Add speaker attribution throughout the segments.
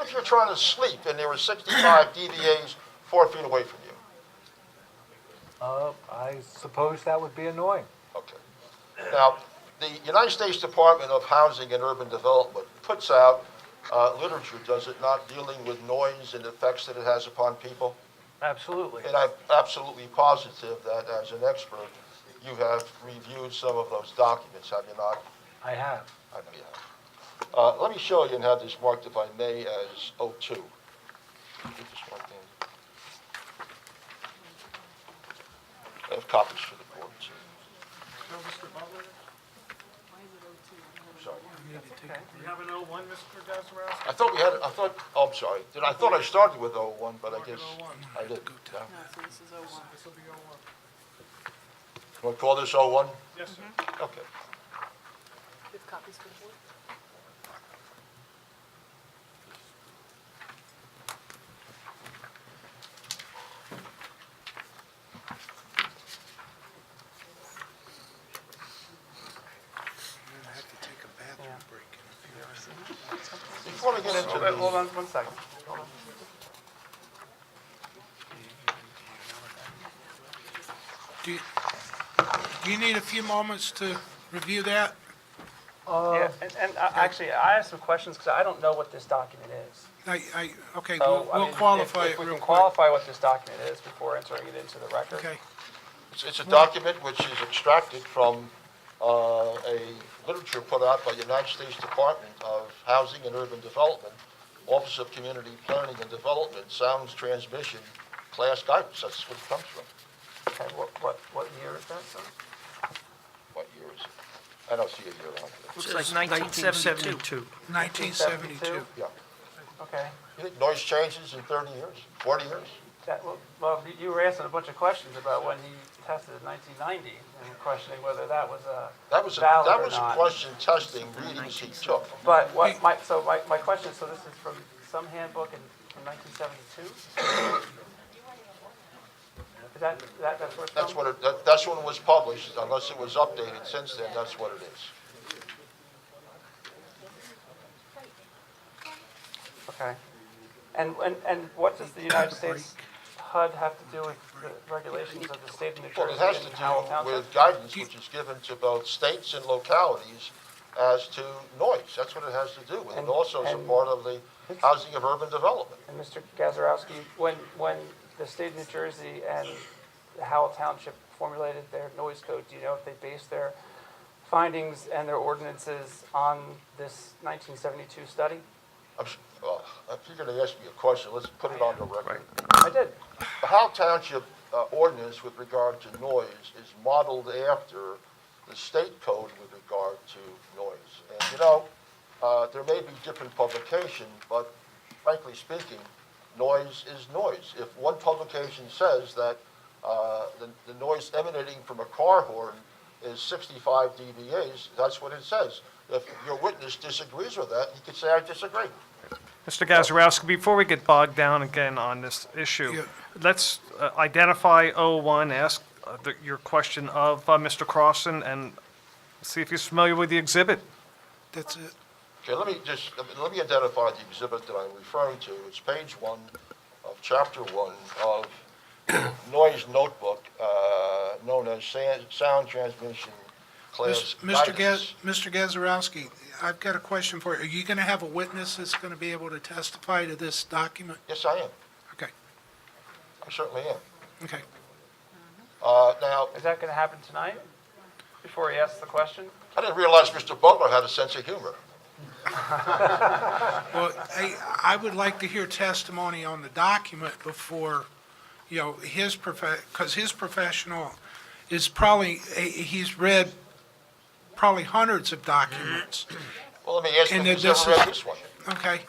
Speaker 1: if you're trying to sleep and there are 65 DVAs four feet away from you?
Speaker 2: Uh, I suppose that would be annoying.
Speaker 1: Okay. Now, the United States Department of Housing and Urban Development puts out uh, literature, does it not, dealing with noise and effects that it has upon people?
Speaker 2: Absolutely.
Speaker 1: And I'm absolutely positive that as an expert, you have reviewed some of those documents, have you not?
Speaker 2: I have.
Speaker 1: I know you have. Uh, Let me show you and have this marked, if I may, as O2. Get this marked in. I have copies for the board, too. Sorry.
Speaker 3: You have an O one, Mr. Gazarovski?
Speaker 1: I thought we had, I thought, oh, I'm sorry, Did- I thought I started with O1, but I guess I didn't. yeah.
Speaker 4: No, so this is O one.
Speaker 3: This will be O one.
Speaker 1: Do I call this O1?
Speaker 3: Yes, sir.
Speaker 5: Mm-hmm.
Speaker 1: Okay.
Speaker 4: You have copies for the board?
Speaker 1: Before we get into that, hold on one second.
Speaker 6: Do you, do you need a few moments to review that?
Speaker 7: Yeah, and, and I- actually, I have some questions, because I don't know what this document is.
Speaker 6: I, I, okay,
Speaker 7: So,
Speaker 6: we'll,
Speaker 7: Oh, I mean,
Speaker 6: we'll
Speaker 7: if-
Speaker 6: qualify
Speaker 7: if
Speaker 6: it
Speaker 7: we
Speaker 6: real
Speaker 7: can
Speaker 6: quick.
Speaker 7: qualify what this document is before entering it into the record.
Speaker 6: Okay,
Speaker 1: It's, it's a document which is extracted from uh, a literature put out by the United States Department of Housing and Urban Development, Office of Community Planning and Development, Sounds Transmission, Class Guidance, that's what it comes from.
Speaker 7: Okay, what, what, what year is that, sir?
Speaker 1: What year is it? I don't see a year on it.
Speaker 5: Looks like 1972.
Speaker 6: 1972.
Speaker 1: Yeah.
Speaker 7: Okay,
Speaker 1: You think noise changes in 30 years, 40 years?
Speaker 7: that, well- well, you- you were asking a bunch of questions about when he tested in 1990, and questioning whether that was uh,
Speaker 1: That was, a-
Speaker 7: valid
Speaker 1: that
Speaker 7: or
Speaker 1: was a
Speaker 7: not.
Speaker 1: question testing readings he took.
Speaker 7: But what, my, so my, my question, is, so this is from some handbook in, from 1972? Is that, that, that's where it's
Speaker 1: That's
Speaker 7: from?
Speaker 1: what, it- that- that's when it was published, unless it was updated since then, that's what it is.
Speaker 7: Okay. And, and, and what does the United States HUD have to do with the regulations of the state of New
Speaker 1: Well, it
Speaker 7: Jersey
Speaker 1: has to
Speaker 7: and Howell
Speaker 1: do
Speaker 7: Township?
Speaker 1: with guidance which is given to both states and localities as to noise. That's what it has to do with. It
Speaker 7: And-
Speaker 1: also is a
Speaker 7: and-
Speaker 1: part of the housing of urban development.
Speaker 7: And Mr. Gazarovski, when, when the state of New Jersey and Howell Township formulated their noise code, do you know if they based their findings and their ordinances on this 1972 study?
Speaker 1: I'm s- well, If you're going to ask me a question, let's put it on the record.
Speaker 7: I did.
Speaker 1: The Howe Township uh, ordinance with regard to noise is modeled after the state code with regard to noise. And, you know, uh, there may be different publication, but frankly speaking, noise is noise. If one publication says that uh, the the noise emanating from a car horn is 65 dBAs, that's what it says. If your witness disagrees with that, he could say, I disagree.
Speaker 5: Mr. Gazarovski, before we get bogged down again on this issue, let's uh, identify O1, ask uh, the- your question of uh, Mr. Crossan, and see if he's familiar with the exhibit.
Speaker 6: That's it.
Speaker 1: Okay, let me just, let me identify the exhibit that I'm referring to. It's page one of chapter one of Noise Notebook, uh, known as San- Sound Transmission Class
Speaker 6: Mis- Mr.
Speaker 1: Guidance.
Speaker 6: Gaz, Mr. Gazarovski, I've got a question for you. Are you going to have a witness that's going to be able to testify to this document?
Speaker 1: Yes, I am.
Speaker 6: Okay,
Speaker 1: I certainly am.
Speaker 6: okay.
Speaker 1: Uh, Now,
Speaker 7: Is that going to happen tonight, before he asks the question?
Speaker 1: I didn't realize Mr. Butler had a sense of humor.
Speaker 6: Well, I, I would like to hear testimony on the document before, you know, his prof, because his professional is probably, he's read probably hundreds of documents.
Speaker 1: Well, let me ask him
Speaker 6: And
Speaker 1: if he's
Speaker 6: this
Speaker 1: ever read
Speaker 6: is-
Speaker 1: this one.
Speaker 6: Okay.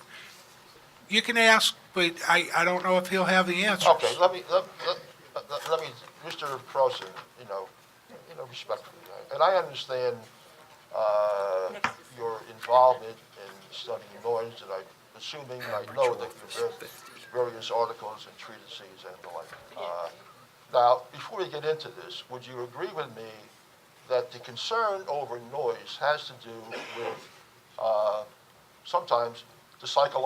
Speaker 6: You can ask, but I, I don't know if he'll have the answers.
Speaker 1: Okay, let me, let, let- let, let me, Mr. Croson, you know, you know, respectfully, and I understand, uh, your involvement in studying noise, and I'm assuming, I know that you've read various articles and treatises and the like. Uh, Now, before we get into this, would you agree with me that the concern over noise has to do with, uh, sometimes the psychological